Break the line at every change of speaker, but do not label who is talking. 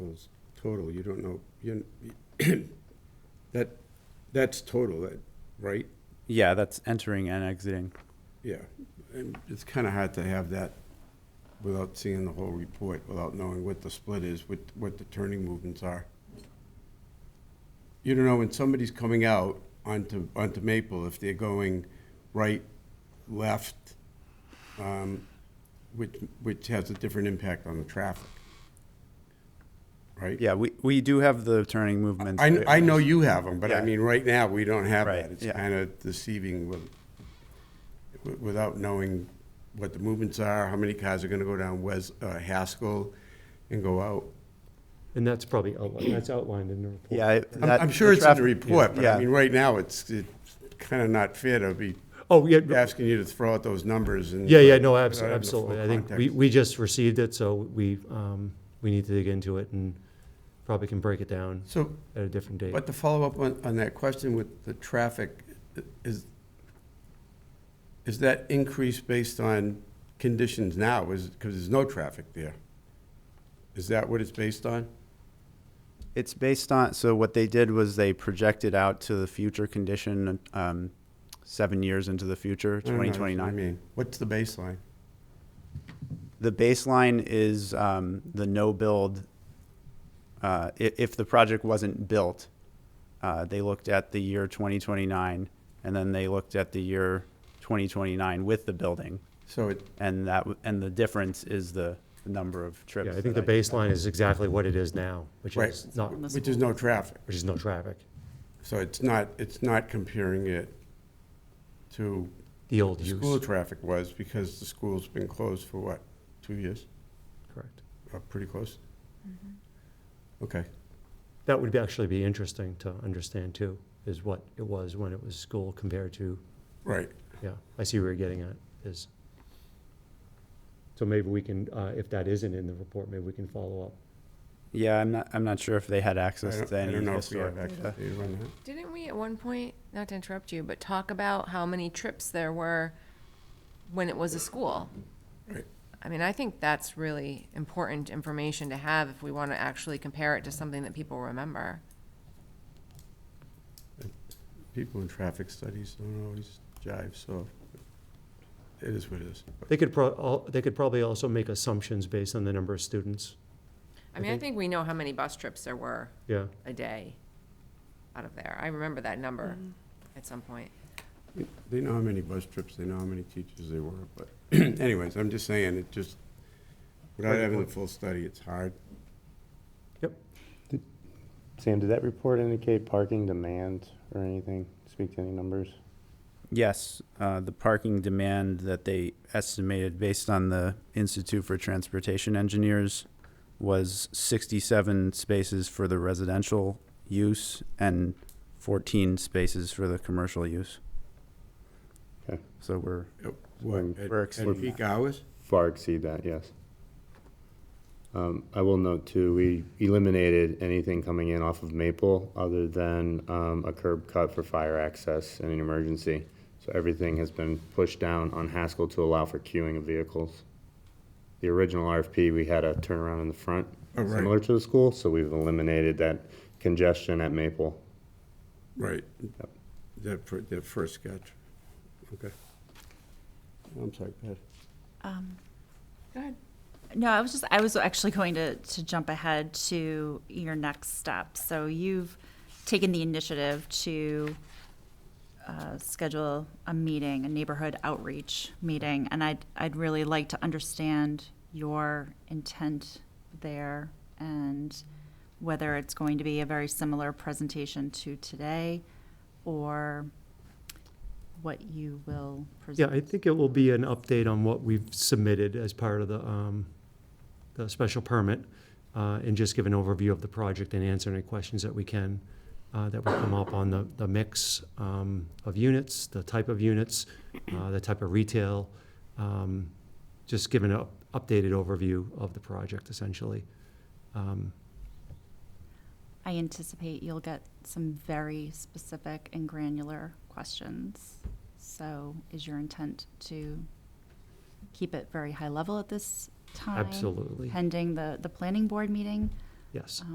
It's Total, you don't know, you, that, that's total, that, right?
Yeah, that's entering and exiting.
Yeah, and it's kind of hard to have that without seeing the whole report, without knowing what the split is, what, what the turning movements are. You don't know when somebody's coming out onto, onto Maple, if they're going right, left, um, which, which has a different impact on the traffic. Right?
Yeah, we, we do have the turning movements.
I, I know you have them, but I
Yeah.
mean, right now, we don't have
Right,
that. It's
yeah.
kind of deceiving with, wi- without knowing what the movements are, how many cars are going to go down Wes, uh, Haskell and go out.
And that's probably outlined, that's outlined in the report.
Yeah. it-
I'm,
that-
I'm sure it's in the
traffic-
report, but I
yeah.
mean, right now, it's, it's kind of not fair to be
Oh, yeah,
asking you to throw out those numbers and.
yeah, yeah, no,
without
abso-
having the
absolutely.
full
I think we,
context.
we just received it, so we, um, we need to dig into it and probably can break it down
So,
at a different date.
But to follow up on, on that question with the traffic, i- is, is that increase based on conditions now, is, because there's no traffic there? Is that what it's based on?
It's based on, so what they did was they projected out to the future condition, um, seven years into the future,
I don't know,
twenty
that's what Mm-hmm. I
twenty-nine.
mean, what's the baseline?
The baseline is, um, the no build. Uh, i- if the project wasn't built, uh, they looked at the year twenty twenty-nine and then they looked at the year twenty twenty-nine with the building.
So it,
And that, w- and the difference is the number of trips.
Yeah, I think the
that
baseline is exactly what it is now, which
right,
is not,
which is no traffic,
which is no traffic,
so it's not, it's not comparing it to
the old
school
use.
traffic was, because the school's been closed for what, two years,
Correct.
Uh, pretty close? Okay.
That would be- actually be interesting to understand too, is what it was when it was school compared to,
Right.
yeah, I see where you're getting at, is. So maybe we can, uh, if that isn't in the report, maybe we can follow up.
Yeah, I'm not, I'm not sure if they had
I
access
don't
to
I
any
don't know if we
historic
have access
data.
to you on that.
Didn't we at one point, not to interrupt you, but talk about how many trips there were when it was a school?
Right.
I mean, I think that's really important information to have if we want to actually compare it to something that people remember.
People in traffic studies don't always jive, so it is what it is.
They could pro, al- they could probably also make assumptions based on the number of students,
I mean, I think we know how many bus trips there were
yeah.
a day out of there. I remember that number at some point.
They know how many bus trips, they know how many teachers there were, but anyways, I'm just saying, it just, without having the full study, it's hard.
Sam, did that report indicate parking demand or anything? Speak to any numbers?
Yes, uh, the parking demand that they estimated based on the Institute for Transportation Engineers was 67 spaces for the residential use and 14 spaces for the commercial use.
Okay.
So we're,
Yep, What, at-
We're
at
exceeding
peak hours?
Far exceed that, yes. Um, I will note too, we eliminated anything coming in off of Maple other than, um, a curb cut for fire access in an emergency. So everything has been pushed down on Haskell to allow for queuing of vehicles. The original RFP, we had a turnaround in the front,
Oh, right.
similar to the school, so we've eliminated that congestion at Maple.
Right. That, fir- that first sketch, okay. I'm sorry, go ahead.
Go ahead.
No, I was just, I was actually going to, to jump ahead to your next step. So you've taken the initiative to uh, schedule a meeting, a neighborhood outreach meeting, and I'd, I'd really like to understand your intent there and whether it's going to be a very similar presentation to today or what you will
Yeah,
present.
I think it will be an update on what we've submitted as part of the, um, the special permit, uh, and just give an overview of the project and answer any questions that we can, uh, that will come up on the, the mix, um, of units, the type of units, uh, the type of retail, um, just give an up- updated overview of the project essentially. Um,
I anticipate you'll get some very specific and granular questions. So is your intent to keep it very high level at this time?
Absolutely.
Pending the, the planning board meeting?
yes.